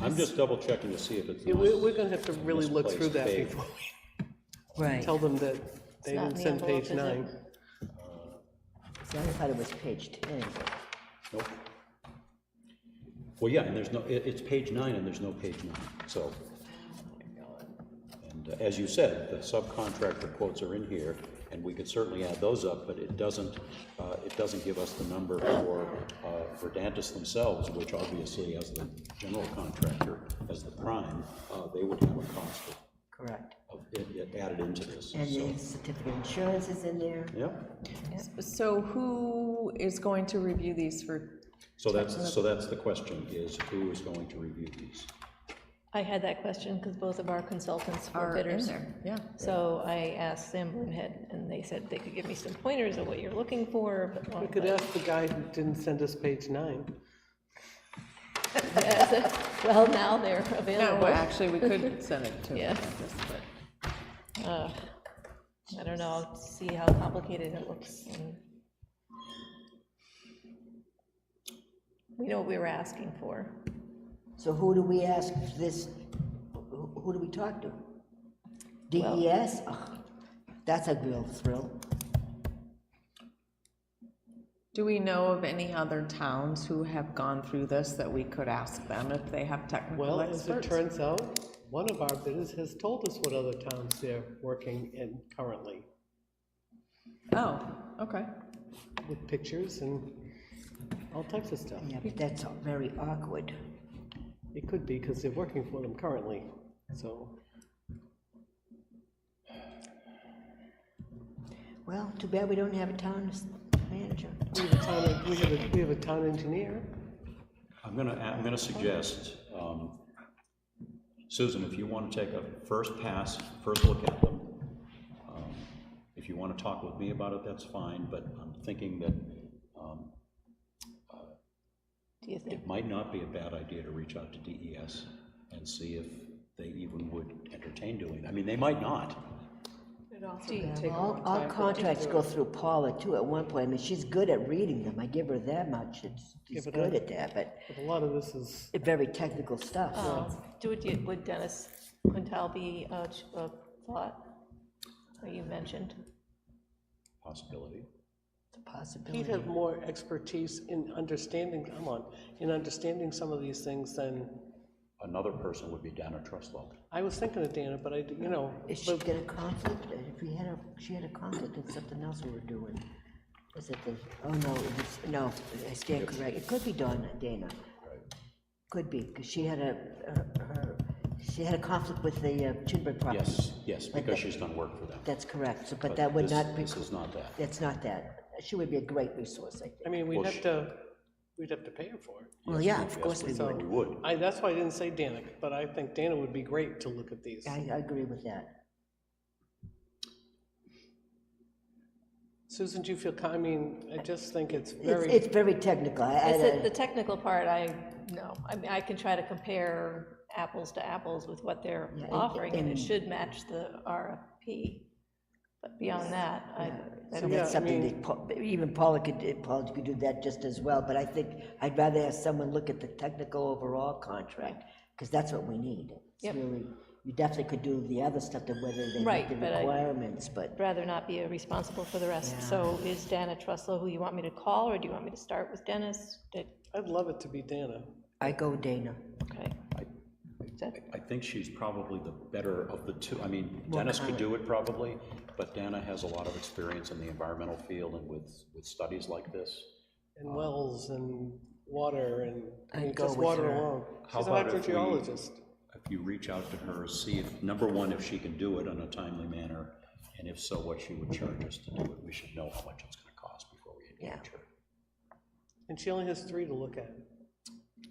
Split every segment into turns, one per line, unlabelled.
I'm just double checking to see if it's
Yeah,
not.
We're, we're gonna have to really look through
Misplaced
that
page.
before we
Right.
tell them that they
not in
didn't
the
send
envelope,
page
is it?
nine.
See, I thought it was page 10.
Nope. Well, yeah, and there's no, it, it's page nine and there's no page nine, so. And uh, as you said, the subcontractor quotes are in here, and we could certainly add those up, but it doesn't, uh, it doesn't give us the number for, uh, Verdantis themselves, which obviously as the general contractor, as the prime, uh, they would have a cost of,
Correct.
of, it- it added into this,
And
so,
the certificate of insurance is in there.
yeah.
So who is going to review these for,
So that's, so that's the question, is who is going to review these?
I had that question because both of our consultants were
Are in
bidders.
there, yeah.
So I asked Sanborn Head, and they said they could give me some pointers of what you're looking for. but-
We could ask the guy who didn't send us page nine.
Well, now they're
no,
available.
well, actually, we could send it to.
Yeah. Uh, I don't know, I'll see how complicated it looks. and- We know what we were asking for.
So who do we ask this, who who do we talk to? DES? Ugh, That's a real thrill.
Do we know of any other towns who have gone through this that we could ask them if they have
Well,
technical
as it
experts?
turns out, one of our bidders has told us what other towns they're working in currently,
Oh, okay.
with pictures and all types of stuff.
Yeah, but that's very awkward.
It could be, because they're working for them currently, so.
Well, too bad we don't have a town s- manager.
We have a town, we have a, we have a town engineer.
I'm gonna, I'm gonna suggest, um, Susan, if you wanna take a first pass, first look at them, um, if you wanna talk with me about it, that's fine, but I'm thinking that
Do you think?
it might not be a bad idea to reach out to DES and see if they even would entertain doing, I mean, they might not.
All, all contracts go through Paula too at one point. I mean, she's good at reading them. I give her that much. It's- She's
but
good
I-
at that, but
But a lot of this is,
very technical stuff.
Um, Do it, you- would Dennis Quintal be a ch- a thought, or you mentioned?
Possibility.
It's a possibility.
he'd have more expertise in understanding, come on, in understanding some of these things than,
Another person would be Dana Truslow.
I was thinking of Dana, but I, d- you know,
Is she get a conflict? Uh, If we had a, she had a conflict in something else we were doing. Was it the, oh, no, it was, no, I stand correct. It could be Donna, Dana. Could be, because she had a, uh, her, she had a conflict with the uh, Chinburg property.
Yes, yes, because she's done work for them.
That's correct, so, but
But
that would
this-
not,
This
preclu-
is not that.
that's not that. She would be a great resource, I
I
think.
mean, we'd
Well,
have
she-
to, we'd have to pay her for it.
Well, yeah, of
Yes,
course we
we
would.
would.
You would.
I, that's why I didn't say Dana, but I think Dana would be great to look at these.
I, I agree with that.
Susan, do you feel, co- I mean, I just think it's
It's,
very,
it's very technical. I, I,
It's the-
I-
the technical part, I, no, I mean, I can try to compare apples to apples with what they're
Yeah, and-
offering, and it
and-
should match the RFP, but beyond that, I, I
So
don't-
yeah, I
that's something
mean-
that, Paul- even Paula could, Paula could do that just as well, but I think I'd rather have someone look at the technical overall contract, because that's what we need. It's
Yep.
really, you definitely could do the other stuff, to whether they meet
Right,
the
but I-
requirements, but
rather not be responsible for the rest. So is Dana Truslow who you want me to call, or do you want me to start with Dennis? Did-
I'd love it to be Dana.
I go Dana.
Okay,
I think she's probably the better of the two. I mean, Dennis could do it probably, but Dana has a lot of experience in the environmental field and with, with studies like this.
And
Oh.
wells and water and, I mean,
I'd go
just
with
water
her.
alone.
How
She's an
about if we-
hydrogeologist.
If you reach out to her, see if, number one, if she can do it in a timely manner, and if so, what she would charge us to do it. We should know how much it's gonna cost before we engage her,
And she only has three to look at.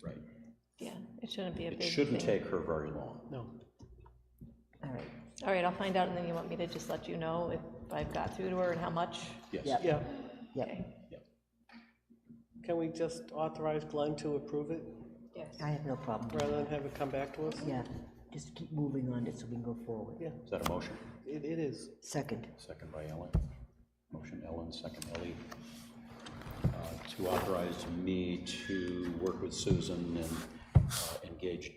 right?
yeah, it shouldn't be a big
It
thing.
shouldn't take her very long.
No.
All right,
All right, I'll find out, and then you want me to just let you know if I've got through to her and how much?
Yes,
Yeah.
Yeah.
yep,
Can we just authorize Glenn to approve it
Yes.
I have no problem. with
rather than have it come back to us?
it. Yeah, just keep moving on it so we can go forward.
Yeah.
is that a motion?
It, it is.
Second,
Second by Ellen. Motion Ellen, second Ellie. Uh, To authorize me to work with Susan and uh, engage